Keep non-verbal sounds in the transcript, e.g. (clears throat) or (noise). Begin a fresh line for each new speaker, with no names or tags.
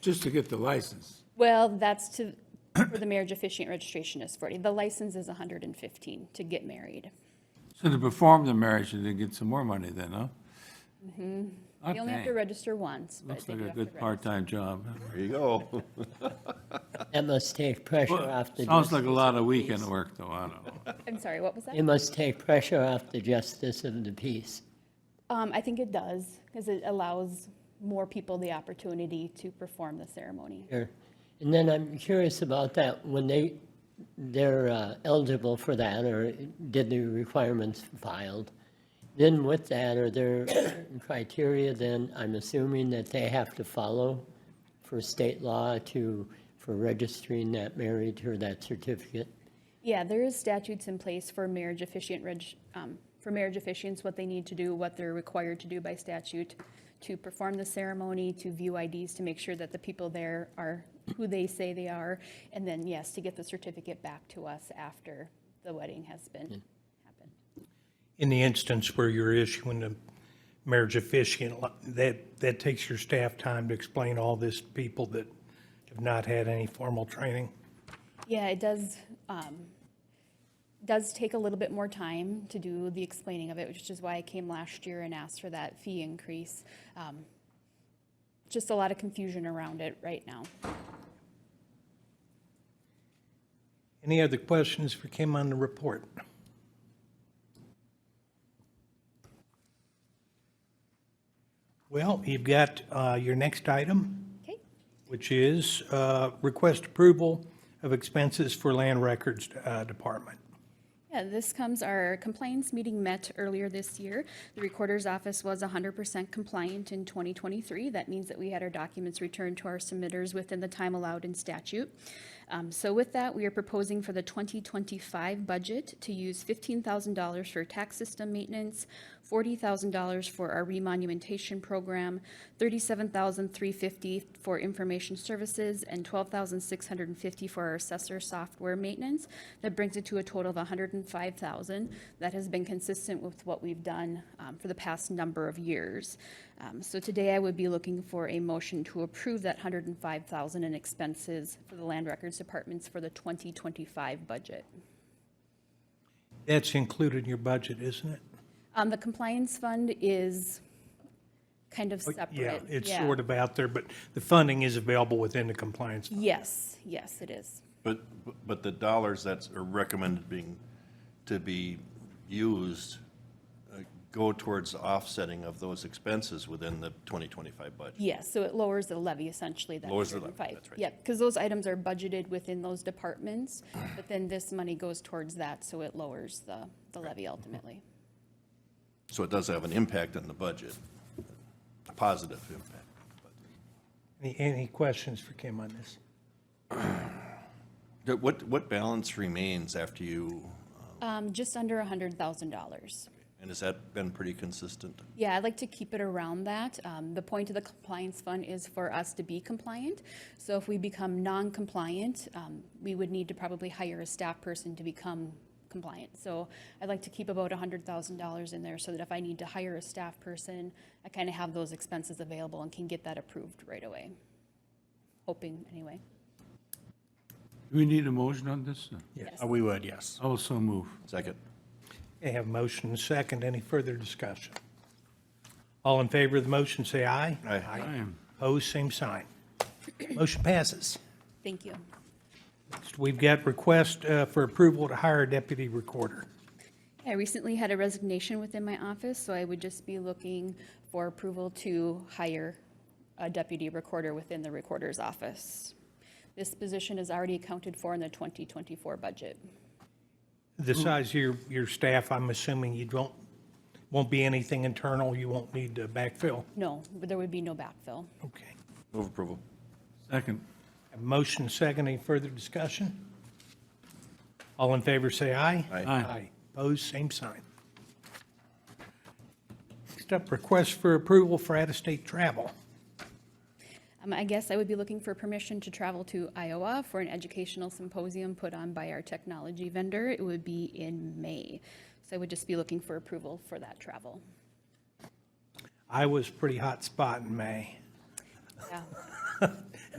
just to get the license.
Well, that's to, for the marriage officiant registration is 40. The license is 115 to get married.
So to perform the marriage, and they get some more money then, huh?
Mm-hmm. You only have to
Okay.
register once, but
Looks
they
like
do
a
have to
good
register.
part-time job.
There you go.
That must take pressure off the.
Sounds like a
justice
lot
the
of weekend
peace.
work, though, I don't know.
I'm sorry, what was that?
It must take pressure off the justice of the peace.
Um, I think it does, because it allows more people the opportunity to perform the ceremony.
Sure. And then I'm curious about that, when they, they're uh, eligible for that, or did the requirements filed, then with that, are there certain criteria then, I'm assuming that they have to follow for state law to, for registering that marriage or that certificate?
Yeah, there is statutes in place for marriage officiant reg, um, for marriage officiants, what they need to do, what they're required to do by statute to perform the ceremony, to view IDs, to make sure that the people there are who they say they are, and then, yes, to get the certificate back to us after the wedding has been, happened.
in the instance where you're issuing a marriage officiant, li- that, that takes your staff time to explain all this to people that have not had any formal training.
Yeah, it does, um, does take a little bit more time to do the explaining of it, which is why I came last year and asked for that fee increase. Um, Just a lot of confusion around it right now.
Any other questions for Kim on the report? Well, you've got uh, your next item,
Okay,
which is uh, request approval of expenses for land records uh, department.
yeah, this comes, our compliance meeting met earlier this year. The recorder's office was hundred percent compliant in twenty twenty-three. That means that we had our documents returned to our submitters within the time allowed in statute. Um, so with that, we are proposing for the twenty twenty-five budget to use fifteen thousand dollars for tax system maintenance, forty thousand dollars for our remonumentation program, thirty-seven thousand three fifty for information services, and twelve thousand six hundred and fifty for our assessor software maintenance. That brings it to a total of $105,000. That has been consistent with what we've done um, for the past number of years. Um, So today I would be looking for a motion to approve that hundred and five thousand dollars in expenses for the land records departments for the twenty twenty-five budget.
That's included in your budget, isn't it?
Um, the compliance fund is kind of separate.
Oh, Yeah, it's
Yeah.
sort of out there, but the funding is available within the compliance.
Yes, yes, it is.
But, but the dollars that's recommended being, to be used uh, go towards offsetting of those expenses within the 2025 budget.
Yes, so it levers the levy essentially. that
Lowers the levy,
105.
that's right.
Yep, because those items are budgeted within those departments, but then this money goes towards that, so it lowers the, the levy ultimately.
So it does have an impact on the budget, a positive impact.
Any, any questions for Kim on this?
But What, what balance remains after you,
Um, just under hundred thousand dollars.
and has that been pretty consistent?
Yeah, I'd like to keep it around that. Um, the point of the compliance fund is for us to be compliant. So if we become non-compliant, um, we would need to probably hire a staff person to become compliant. So I'd like to keep about hundred thousand dollars in there so that if I need to hire a staff person, I kind of have those expenses available and can get that approved right away. Hoping, anyway.
Do we need a motion on this?
Yes.
Uh, We would, yes.
I will so move.
Second.
I have motion and second. Any further discussion? All in favor of the motion, say aye.
Aye.
Opposed, same sign. (clears throat) Motion passes.
Thank you.
Next, We've got request uh, for approval to hire a deputy recorder.
I recently had a resignation within my office, so I would just be looking for approval to hire a deputy recorder within the recorder's office. This position is already accounted for in the 2024 budget.
The size of your, your staff, I'm assuming you don't, won't be anything internal. You won't need to backfill.
No, there would be no backfill.
Okay.
Move approval.
Second.
Have Motion second, any further discussion? All in favor, say aye.
Aye.
Aye.
Opposed, same sign. Next up, request for approval for out-of-state travel.
Um, I guess I would be looking for permission to travel to Iowa for an educational symposium put on by our technology vendor. It would be in May. So I would just be looking for approval for that travel.
Iowa's a pretty hot spot in May.
Yeah.